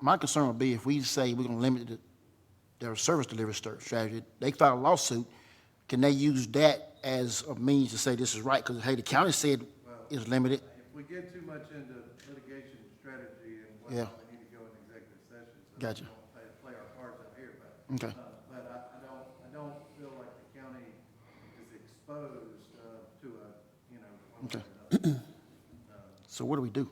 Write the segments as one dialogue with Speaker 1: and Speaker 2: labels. Speaker 1: my concern would be if we say we're gonna limit the- their service delivery stra- strategy, they file a lawsuit, can they use that as a means to say this is right? Because, hey, the county said it's limited.
Speaker 2: If we get too much into litigation strategy and
Speaker 1: Yeah.
Speaker 2: whatnot, we need to go into executive session. so we
Speaker 1: Gotcha.
Speaker 2: don't play- Play our cards out here, but.
Speaker 1: Okay.
Speaker 2: uh, But I, I don't, I don't feel like the county is exposed uh, to a, you know, one way or
Speaker 1: Okay.
Speaker 2: another.
Speaker 1: So what do we do?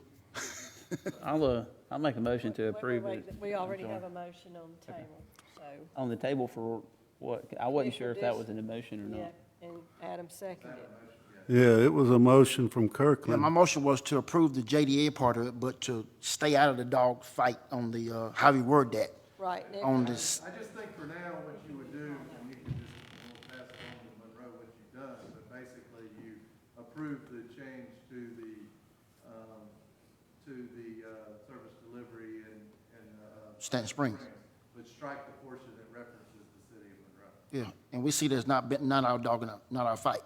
Speaker 3: I'll, uh, I'll make a motion to
Speaker 4: Wait, wait,
Speaker 3: approve
Speaker 4: wait,
Speaker 3: it
Speaker 4: We already have a motion on the table, so,
Speaker 3: on the table for what, I wasn't sure if that was an emotion or
Speaker 4: yeah,
Speaker 3: not.
Speaker 4: and Adam seconded it.
Speaker 5: Yeah, it was a motion from
Speaker 1: Yeah, my
Speaker 5: Kirkland.
Speaker 1: motion was to approve the JDA part of it, but to stay out of the dog fight on the, uh, how we word that,
Speaker 4: Right, Nick?
Speaker 1: on this,
Speaker 2: I just think for now, what you would do, and you can just, we'll pass it on to Monroe what you've done, but basically you approve the change to the, um, to the uh, service delivery and, and. uh,
Speaker 1: Stanton Springs.
Speaker 2: But strike the portion that references the city of Monroe.
Speaker 1: Yeah, and we see there's not been, not our dog, and our- not our fight.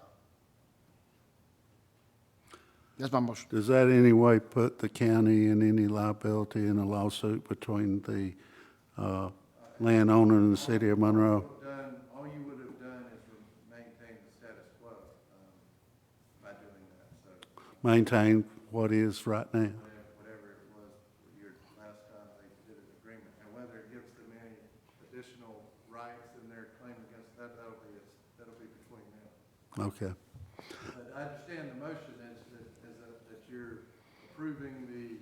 Speaker 1: That's my motion.
Speaker 5: Does that in any way put the county in any liability in a lawsuit between the uh, landowner and the city of
Speaker 1: Oh.
Speaker 5: Monroe?
Speaker 2: Done, all you would have done is re- maintain the status quo um, by doing that, so
Speaker 5: Maintain what is right now?
Speaker 2: whatever- whatever it was, your last time they did an agreement. And whether it gives them any additional rights in their claim against that, that'll be, that'll be between them.
Speaker 5: Okay.
Speaker 2: But I understand the motion is that, is that that you're approving the,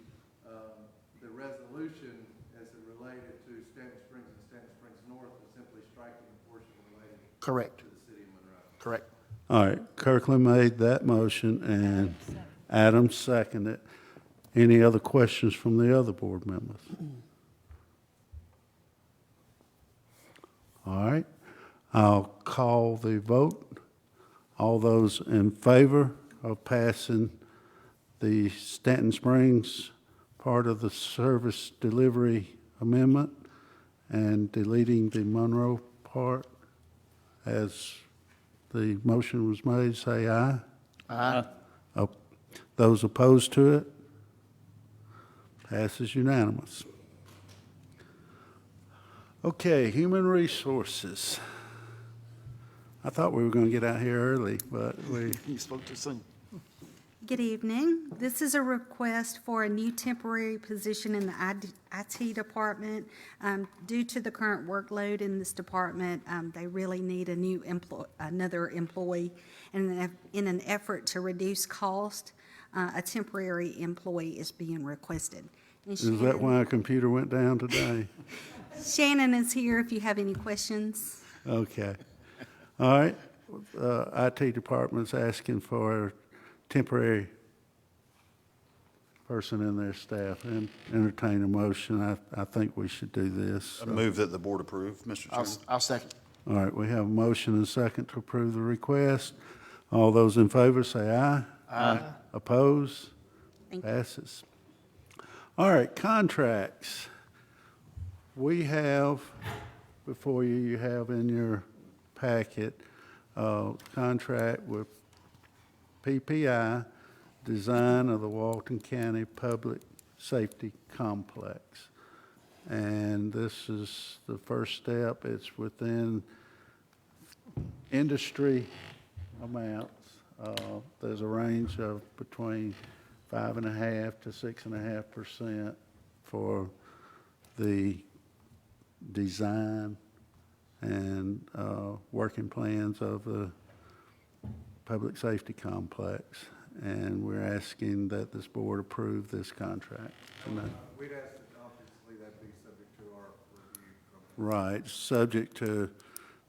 Speaker 2: um, the resolution as it related to Stanton Springs and Stanton Springs North, and simply striking the portion related
Speaker 1: Correct,
Speaker 2: to the city of Monroe.
Speaker 1: correct.
Speaker 5: All right, Kirkland made that motion and Adams seconded. Any other questions from the other board members? All right, I'll call the vote. All those in favor of passing the Stanton Springs part of the service delivery amendment and deleting the Monroe part as the motion was made, say aye.
Speaker 1: Aye.
Speaker 5: Op- Those opposed to it? Passes unanimous. Okay, Human Resources. I thought we were going to get out here early, but we,
Speaker 1: You spoke too soon.
Speaker 6: Good evening. This is a request for a new temporary position in the ID IT department. Um, Due to the current workload in this department, um, they really need a new employ, another employee. And in an eff- in an effort to reduce cost, uh, a temporary employee is being requested. And
Speaker 5: is that
Speaker 6: Shannon-
Speaker 5: why our computer went down today?
Speaker 6: Shannon is here if you have any questions.
Speaker 5: Okay. All right, Uh, IT Department's asking for temporary person in their staff. and Entertain a motion. I, I think we should do this.
Speaker 7: I move that the board approve, Mr.
Speaker 1: I'll,
Speaker 7: Chairman.
Speaker 1: I'll second.
Speaker 5: All right, we have a motion and a second to approve the request. All those in favor say aye. Aye. Oppose?
Speaker 6: Thank you.
Speaker 5: Passes. All right, contracts. We have, before you, you have in your packet, uh, contract with PPI, design of the Walton County Public Safety Complex. And this is the first step. It's within industry amounts. Uh, There's a range of between five and a half to six and a half percent for the design and uh, working plans of the public safety complex. And we're asking that this board approve this contract. And that-
Speaker 2: We'd ask that obviously that be subject to our review from
Speaker 5: Right, subject to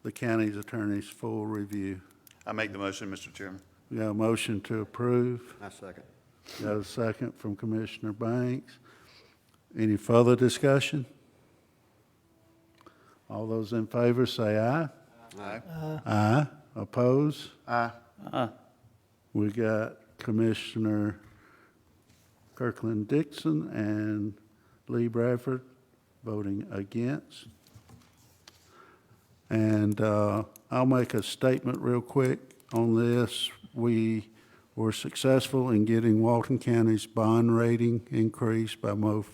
Speaker 5: the county's attorney's full review.
Speaker 7: I make the motion, Mr. Chairman.
Speaker 5: We got a motion to approve.
Speaker 7: I second.
Speaker 5: Got a second from Commissioner Banks. Any further discussion? All those in favor say aye.
Speaker 7: Aye.
Speaker 5: Aye. Oppose?
Speaker 1: Aye.
Speaker 5: We got Commissioner Kirkland Dixon and Lee Bradford voting against. And uh, I'll make a statement real quick on this. We were successful in getting Walton County's bond rating increased by mo-